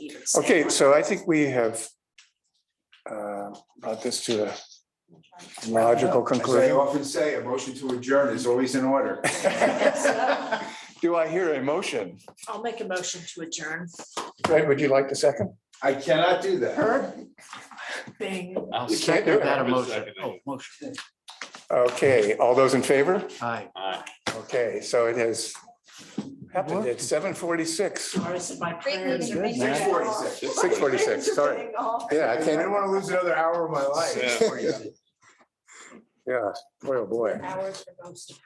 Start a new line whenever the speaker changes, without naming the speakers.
same
Okay,
one.
so I think we have uh, brought this to a logical
As I
conclusion.
often say, a motion to adjourn is always in order.
Do I hear a motion?
I'll make a motion to adjourn.
Fred, would you like the second?
I cannot do that.
Bing.
I'll
You can't do
second
it.
that emotion.
Second.
Oh, motion.
Okay, all those in favor?
Aye.
Okay, so it has happened at seven forty-six.
Or is it my prayers?
meeting,
are
great
being-
Six forty-six.
Six forty-six, sorry. Yeah, I
I didn't
can't,
want to lose another hour of my life.
yeah, boy, oh boy.
Hours for most of